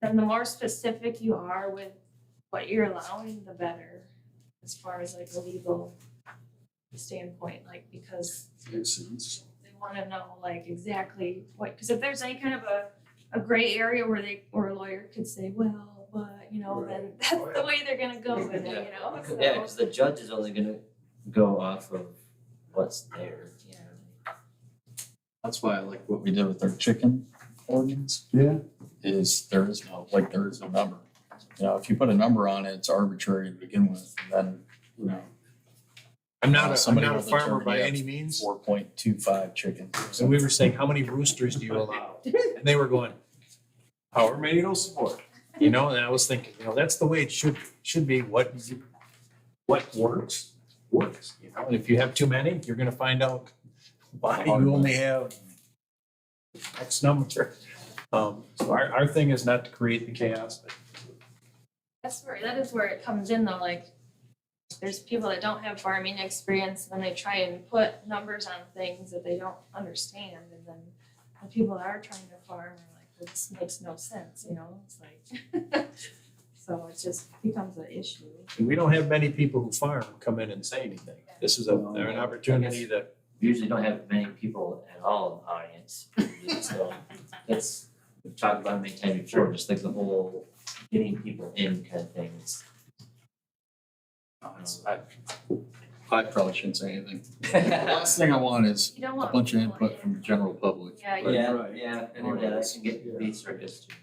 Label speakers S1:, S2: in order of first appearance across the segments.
S1: then the more specific you are with what you're allowing, the better. As far as like a legal standpoint, like because
S2: Makes sense.
S1: they wanna know like exactly what, cause if there's any kind of a, a gray area where they, or a lawyer could say, well, but, you know, then that's the way they're gonna go with it, you know, so.
S3: Yeah, cause the judge is only gonna go off of what's there, you know.
S4: That's why I like what we did with our chicken ordinance,
S2: Yeah,
S4: is there is no, like, there is no number. You know, if you put a number on it, it's arbitrary to begin with, and then, you know,
S5: I'm not a, I'm
S4: Somebody
S5: not a
S4: will
S5: farmer by
S4: determine
S5: any means.
S4: four point two five chickens.
S5: So we were saying, how many roosters do you allow? And they were going, however many it'll support. You know, and I was thinking, you know, that's the way it should, should be. What, what works, works, you know? And if you have too many, you're gonna find out why you only have X number. Um, so our, our thing is not to create the chaos, but
S1: That's where, that is where it comes in though, like, there's people that don't have farming experience, and they try and put numbers on things that they don't understand, and then the people that are trying to farm are like, well, this makes no sense, you know, it's like, so it just becomes an issue.
S5: we don't have many people who farm come in and say anything. This is a, they're an opportunity that
S3: We Usually don't have many people at all in the audience, so that's, we've talked about it many times before, just like the whole getting people in kind of things.
S4: I I probably shouldn't say anything. The last thing I want is
S1: You don't
S4: a
S1: want.
S4: bunch of
S1: people
S4: input
S1: in.
S4: from the general public.
S1: Yeah, you-
S3: Yeah,
S2: right.
S3: yeah, or
S4: Anyone
S3: yeah, that
S4: else?
S3: can get to be circus too.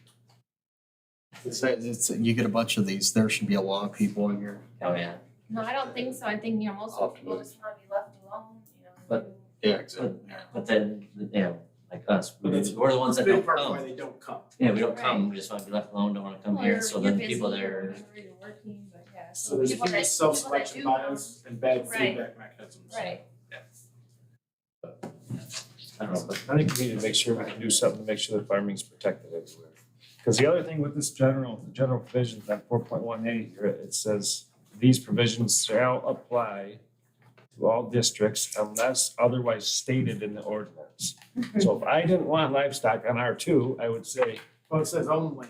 S4: It's, it's, you get a bunch of these, there should be a lot of people in here.
S3: Oh, yeah,
S1: no, I don't think so, I think, you know, most of the people
S4: Optimally.
S1: just wanna be left alone, you know.
S3: But-
S4: Yeah, exactly. Yeah.
S3: but then, you know, like us, we're the we're the ones that don't come,
S2: they don't come.
S3: yeah, we don't come, we just wanna be left alone, don't wanna come here, so then the people there.
S1: Or you're busy, or you're working, but yeah, so the people that, people that do. come-
S2: and bad
S1: Right.
S2: mechanisms.
S1: Right,
S3: I don't know, but
S5: I think we need to make sure we can do something to make sure that farming's protected everywhere. Because the other thing with this general, the general provisions on four point one eight here, it says, these provisions shall apply to all districts unless otherwise stated in the ordinance. So if I didn't want livestock on R two, I would say,
S2: Well, it says only.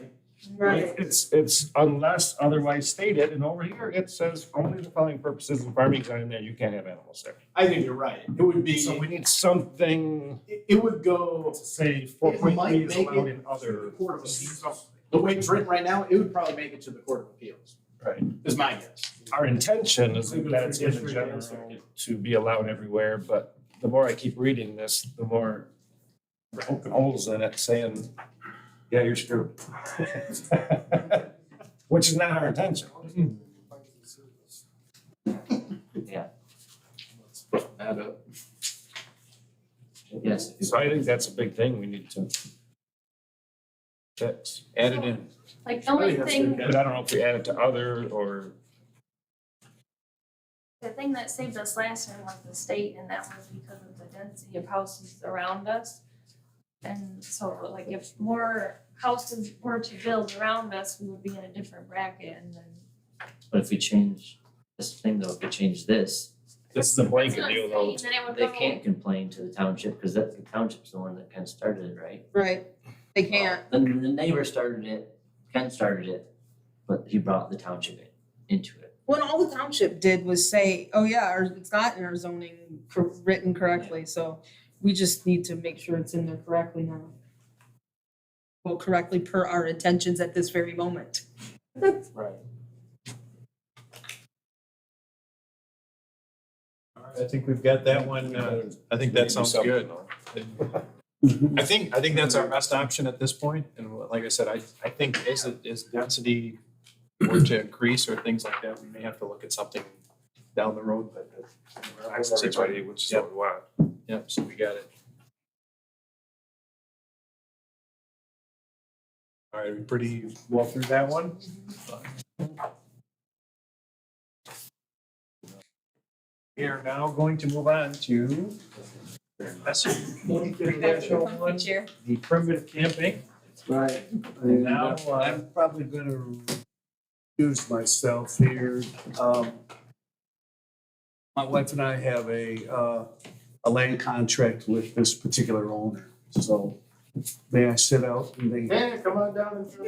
S6: Right.
S5: it's, it's unless otherwise stated, and over here, it says only the following purposes of farming are in there, you can't have animals there.
S2: I think you're right. It would be,
S5: So we need something
S2: it it would go,
S5: to say four
S2: it
S5: point
S2: might
S5: three
S2: make
S5: is
S2: it
S5: allowed in
S2: to the
S5: other.
S2: Court of Appeals. The way it's written right now, it would probably make it to the Court of Appeals,
S5: Right.
S2: is my guess.
S5: Our intention is
S2: Leave it
S5: that it's
S2: for
S5: in
S2: just
S5: the
S2: for
S5: general
S2: the answer.
S5: to be allowed everywhere, but the more I keep reading this, the more we're poking holes in it saying, yeah, you're screwed. Which is not our intention.
S2: Mm-hmm.
S4: Add up.
S3: yes, if you
S5: So I think that's a big thing we need to fix, add it in.
S1: like the only
S2: I think that's
S1: thing,
S2: good.
S5: But I don't know if we add it to other or
S1: the thing that saved us last year was the state, and that was because of the density of houses around us. And so like if more houses were to build around us, we would be in a different bracket and then.
S3: But if we change this thing though, if we change this,
S5: this is a
S1: It's
S5: blanket
S1: not
S5: deal
S1: saying
S5: though.
S1: that it would
S3: they
S1: go-
S3: can't complain to the township, because that's the township's the one that kind of started it, right?
S6: Right, they can't.
S3: Then the neighbor started it, Ken started it, but he brought the township in, into it.
S6: When all the township did was say, oh yeah, our, it's not in our zoning cor- written correctly, so we just need to make sure it's in there correctly now. Well, correctly per our intentions at this very moment.
S3: Right.
S5: I think we've got that one, uh, I think that sounds good. I think, I think that's our best option at this point, and like I said, I, I think as, it- as density were to increase or things like that, we may have to look at something down the road, but. I was everybody, which is what we want. Yep, so we got it. All right, we pretty well through that one? We are now going to move on to
S6: Chair.
S5: the primitive camping.
S7: Right,
S5: And
S7: and
S5: now,
S7: now
S5: uh,
S7: I'm probably gonna use myself here. Um, My wife and I have a, uh, a land contract with this particular owner, so may I sit out and they
S2: Yeah, come on down and.